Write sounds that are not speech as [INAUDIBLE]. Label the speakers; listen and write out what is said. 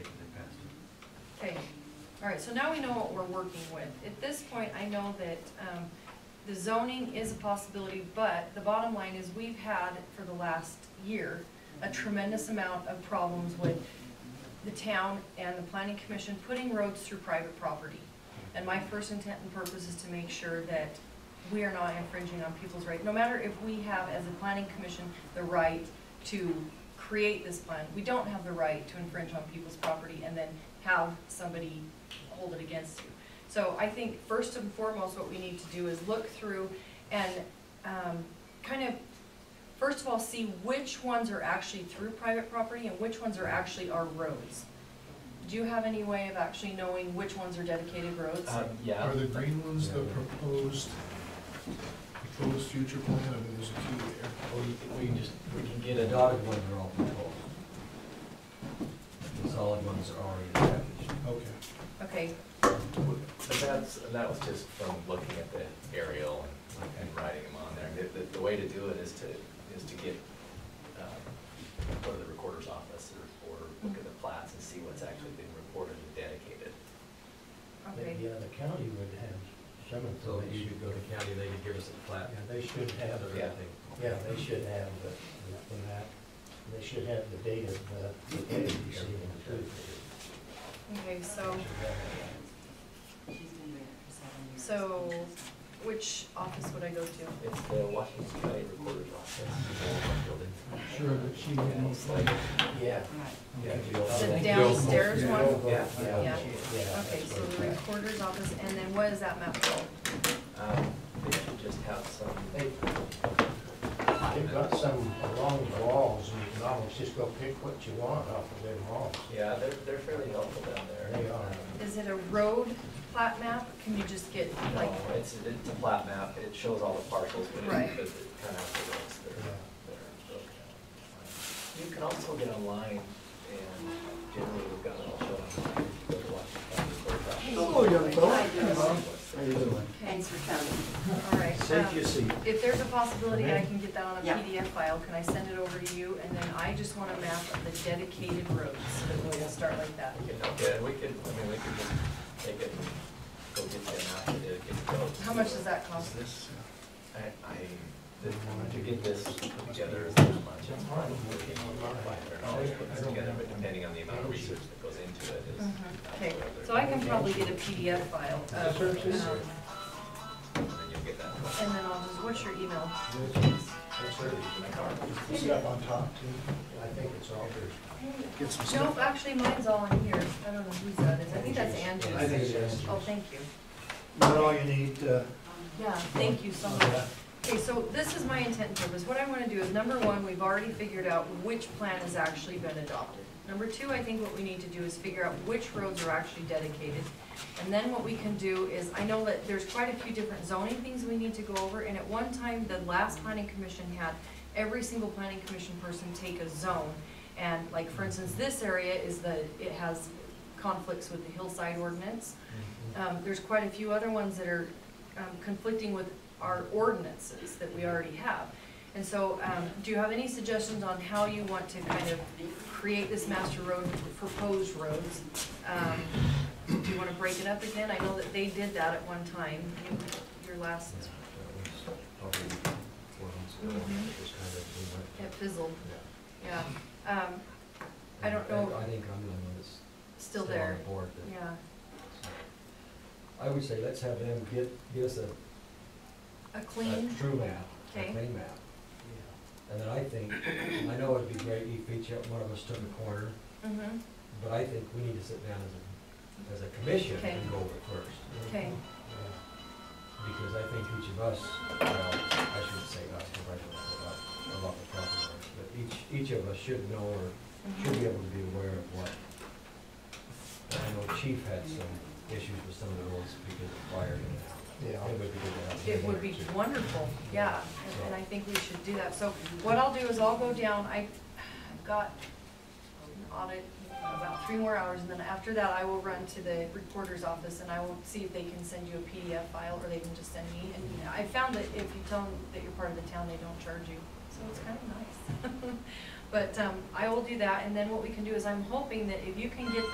Speaker 1: All right, so now we know what we're working with. At this point, I know that um, the zoning is a possibility, but the bottom line is we've had for the last year a tremendous amount of problems with the town and the planning commission putting roads through private property. And my first intent and purpose is to make sure that we are not infringing on people's rights, no matter if we have, as a planning commission, the right to create this plan. We don't have the right to infringe on people's property and then have somebody hold it against you. So I think first and foremost, what we need to do is look through and um, kind of, first of all, see which ones are actually through private property and which ones are actually our roads. Do you have any way of actually knowing which ones are dedicated roads?
Speaker 2: Uh,
Speaker 3: Um, yeah.
Speaker 4: Are the green ones the proposed, proposed future plan, I mean, there's a key there.
Speaker 5: Or you can- we can just, we can get a dotted one for all proposed. The solid ones are already packaged.
Speaker 4: Okay.
Speaker 1: Okay,
Speaker 3: But that's, and that was just from looking at the aerial and- and writing them on there. The, the- the way to do it is to, is to get, um, go to the recorder's office or, or look at the plats and see what's actually been reported and dedicated.
Speaker 2: But,
Speaker 1: okay.
Speaker 2: Yeah, the county would have some
Speaker 5: So if you
Speaker 2: information.
Speaker 5: could go to county, they could give us a
Speaker 2: Yeah,
Speaker 5: plat.
Speaker 2: they should have,
Speaker 5: of
Speaker 3: Yeah.
Speaker 5: everything.
Speaker 2: yeah, they should have the, the map. They should have the date of the, the date you see in the food.
Speaker 1: Okay, so So- which office would I go to?
Speaker 3: It's the Washington County Recorder's Office, the old building.
Speaker 4: Sure, but she
Speaker 3: Yeah, it's like-
Speaker 2: Yeah.
Speaker 3: Yeah,
Speaker 2: Okay.
Speaker 3: the old-
Speaker 2: The
Speaker 3: Yeah.
Speaker 1: downstairs
Speaker 4: one?
Speaker 2: Yeah.
Speaker 3: Yeah.
Speaker 2: Yeah.
Speaker 1: Okay,
Speaker 2: that's
Speaker 1: so the
Speaker 2: where it's at.
Speaker 1: recorder's office, and then what is that map called?
Speaker 3: Um, They should just have some.
Speaker 2: They've got some along the walls, and you can almost just go pick what you want off of them walls.
Speaker 3: Yeah, they're, they're fairly helpful down there.
Speaker 2: They are.
Speaker 3: Um,
Speaker 1: Is it a road plat map? Can you just get like,
Speaker 3: No, it's, it's a flat map, it shows all the parcels, but
Speaker 1: Right.
Speaker 3: it, but it kind of has the roads that are, that are broken out. You can also get online, and generally we've got it all shown online, if you go to Washington
Speaker 6: Hello, young
Speaker 3: County.
Speaker 6: Thanks for coming.
Speaker 1: all right. um,
Speaker 5: seat.
Speaker 1: If there's a possibility I can get that on a
Speaker 6: Yeah.
Speaker 1: PDF file, can I send it over to you? And then I just want a map of the dedicated roads, so we'll start like that.
Speaker 3: We can, okay, we could, I mean, we could just take it, and go get the map, and get it goes.
Speaker 1: How much does that cost?
Speaker 4: this?
Speaker 3: I, I, the- to get this put together is not much, it's probably five hundred dollars, put this together, but depending on the amount of research that goes into it is.
Speaker 1: Mhm. Okay, so I can probably get a PDF file of, um,
Speaker 2: Search
Speaker 1: and
Speaker 2: this.
Speaker 3: And then you'll get that.
Speaker 1: then I'll just, what's your email?
Speaker 3: That's early, my car.
Speaker 4: Is that on top too?
Speaker 2: I think it's all good.
Speaker 4: Get some
Speaker 1: Nope,
Speaker 4: stuff.
Speaker 1: actually, mine's all in here. I don't know whose that is. I think that's
Speaker 2: Angie's.
Speaker 1: Angie's.
Speaker 2: think it's
Speaker 1: Oh,
Speaker 2: Angie's.
Speaker 1: thank you.
Speaker 2: Not all you need, uh,
Speaker 1: Yeah, thank you so much. Okay, so this is my intent and purpose. What I want to do is, number one, we've already figured out which plan has actually been adopted. Number two, I think what we need to do is figure out which roads are actually dedicated. And then what we can do is, I know that there's quite a few different zoning things we need to go over, and at one time, the last planning commission had every single planning commission person take a zone. And like, for instance, this area is the, it has conflicts with the hillside ordinance. Um, there's quite a few other ones that are um, conflicting with our ordinances that we already have. And so, um, do you have any suggestions on how you want to kind of create this master road, proposed roads? Um, Do you want to break it up again? I know that they did that at one time, You- your last, Mm-hmm. it fizzled, yeah. Um, I don't know.
Speaker 5: I think I'm the one that's still
Speaker 1: Still
Speaker 5: on
Speaker 1: there,
Speaker 5: the board. but-
Speaker 1: yeah.
Speaker 5: I would say let's have them get, give us a
Speaker 1: A
Speaker 5: a
Speaker 1: clean,
Speaker 5: true map, a
Speaker 1: Okay.
Speaker 5: clean map. And then I think, I know it'd be great if each one of us took a corner,
Speaker 1: hmm
Speaker 5: but I think we need to sit down as a, as a commission
Speaker 1: Okay.
Speaker 5: and go over it first.
Speaker 1: okay,
Speaker 5: Because I think each of us, well, I shouldn't say us, because I don't know about a lot of property owners, but each, each of us should know or
Speaker 1: mm-hmm.
Speaker 5: should be able to be aware of what. I know Chief had some issues with some of the rules because of fire and
Speaker 2: Yeah.
Speaker 5: It would be good to have.
Speaker 1: It would be wonderful, yeah, and- and I think we should do that. So what I'll do is I'll go down, I- I've got an audit in about three more hours, and then after that, I will run to the recorder's office and I will see if they can send you a PDF file or they can just send me. And I found that if you tell them that you're part of the town, they don't charge you, so it's kind [LAUGHS] of nice. But um, I will do that, and then what we can do is I'm hoping that if you can get